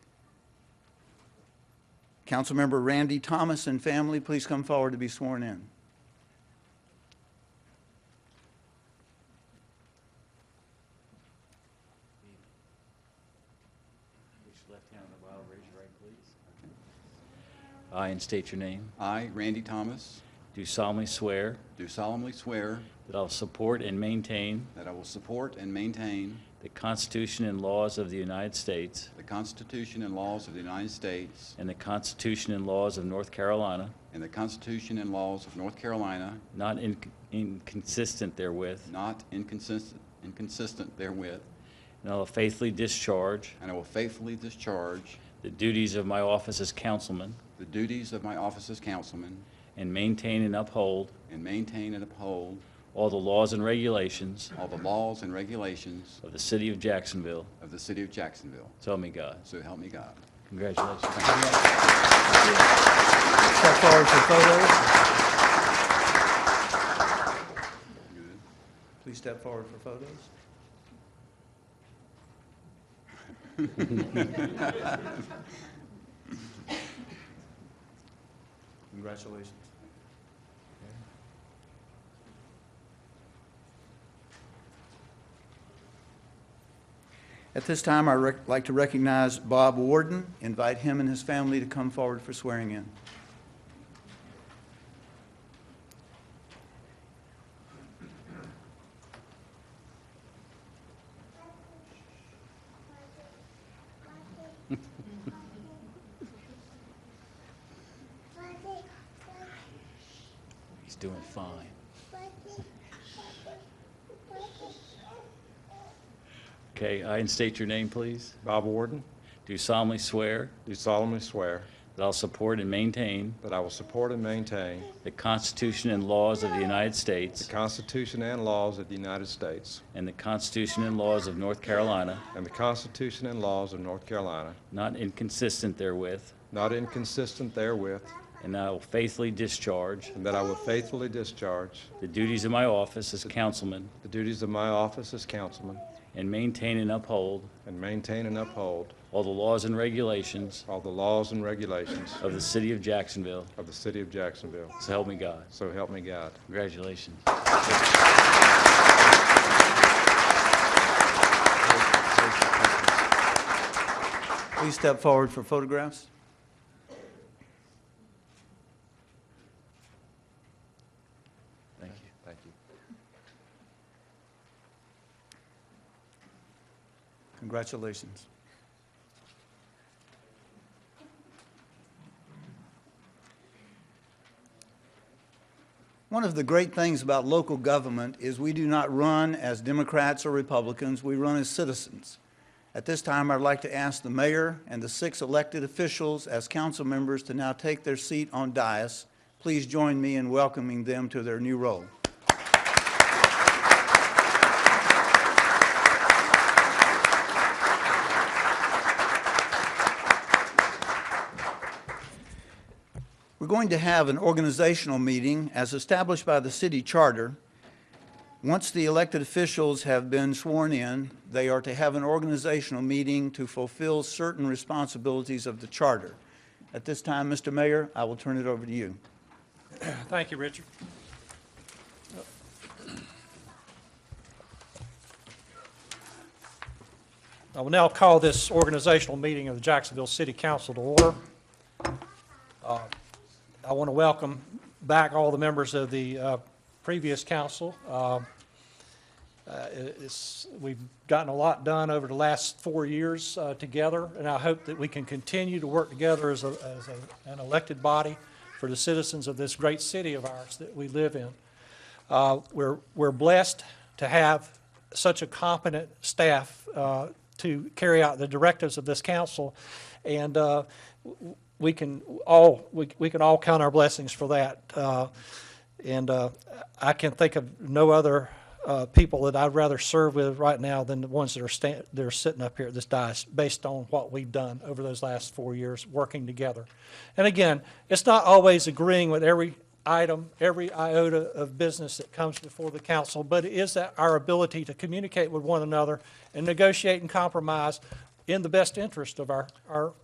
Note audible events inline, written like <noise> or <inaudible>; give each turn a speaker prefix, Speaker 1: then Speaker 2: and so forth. Speaker 1: Councilmember Randy Thomas and family, please come forward to be sworn in.
Speaker 2: Put your left hand on the Bible, raise your right, please. I, and state your name,
Speaker 3: I, Randy Thomas,
Speaker 2: do solemnly swear
Speaker 3: do solemnly swear
Speaker 2: that I will support and maintain
Speaker 3: that I will support and maintain
Speaker 2: the Constitution and laws of the United States
Speaker 3: the Constitution and laws of the United States
Speaker 2: and the Constitution and laws of North Carolina,
Speaker 3: and the Constitution and laws of North Carolina,
Speaker 2: not in- inconsistent therewith,
Speaker 3: not inconsistent, inconsistent therewith,
Speaker 2: and I will faithfully discharge
Speaker 3: and I will faithfully discharge
Speaker 2: the duties of my office as councilman
Speaker 3: the duties of my office as councilman
Speaker 2: and maintain and uphold
Speaker 3: and maintain and uphold
Speaker 2: all the laws and regulations
Speaker 3: all the laws and regulations
Speaker 2: of the city of Jacksonville.
Speaker 3: of the city of Jacksonville.
Speaker 2: So help me God.
Speaker 3: So help me God.
Speaker 2: Congratulations.
Speaker 1: Step forward for photos.
Speaker 3: Good.
Speaker 1: Please step forward for <laughs> photos. Congratulations. At this time, I'd rec- like to recognize Bob Warden, invite him and his family to come forward for swearing in.
Speaker 2: He's doing fine. Okay, I, and state your name, please.
Speaker 4: Bob Warden,
Speaker 2: Do solemnly swear
Speaker 4: do solemnly swear
Speaker 2: that I'll support and maintain
Speaker 4: that I will support and maintain
Speaker 2: the Constitution and laws of the United
Speaker 4: the
Speaker 2: States
Speaker 4: Constitution and laws of the United States
Speaker 2: and the Constitution and laws of North Carolina,
Speaker 4: and the Constitution and laws of North Carolina,
Speaker 2: not inconsistent therewith,
Speaker 4: not inconsistent therewith,
Speaker 2: and I will faithfully discharge
Speaker 4: and that I will faithfully discharge
Speaker 2: the duties of my office as councilman
Speaker 4: the duties of my office as councilman
Speaker 2: and maintain and uphold
Speaker 4: and maintain and uphold
Speaker 2: all the laws and regulations
Speaker 4: all the laws and regulations
Speaker 2: of the city of Jacksonville.
Speaker 4: of the city of Jacksonville.
Speaker 2: So help me God.
Speaker 4: So help me God.
Speaker 2: Congratulations.
Speaker 1: Please step forward for photographs.
Speaker 2: Thank you.
Speaker 4: Thank you.
Speaker 1: Congratulations. One of the great things about local government is we do not run as Democrats or Republicans, we run as citizens. At this time, I'd like to ask the mayor and the six elected officials as council members to now take their seat on dais. Please join me in welcoming them to their new role. We're going to have an organizational meeting as established by the city charter. Once the elected officials have been sworn in, they are to have an organizational meeting to fulfill certain responsibilities of the charter. At this time, Mr. Mayor, I will turn it over to you.
Speaker 5: Thank you, Richard. I will now call this organizational meeting of the Jacksonville City Council to order. Uh, I want to welcome back all the members of the uh, previous council. Uh, uh, it's- We've gotten a lot done over the last four years uh, together, and I hope that we can continue to work together as a- as a- an elected body for the citizens of this great city of ours that we live in. Uh, We're we're blessed to have such a competent staff uh, to carry out the directives of this council, and uh, w- we can all, we we can all count our blessings for that. Uh, and uh, I can think of no other uh, people that I'd rather serve with right now than the ones that are stand, that are sitting up here at this dais, based on what we've done over those last four years working together. And again, it's not always agreeing with every item, every iota of business that comes before the council, but it is that our ability to communicate with one another and negotiate and compromise in the best interest of our, our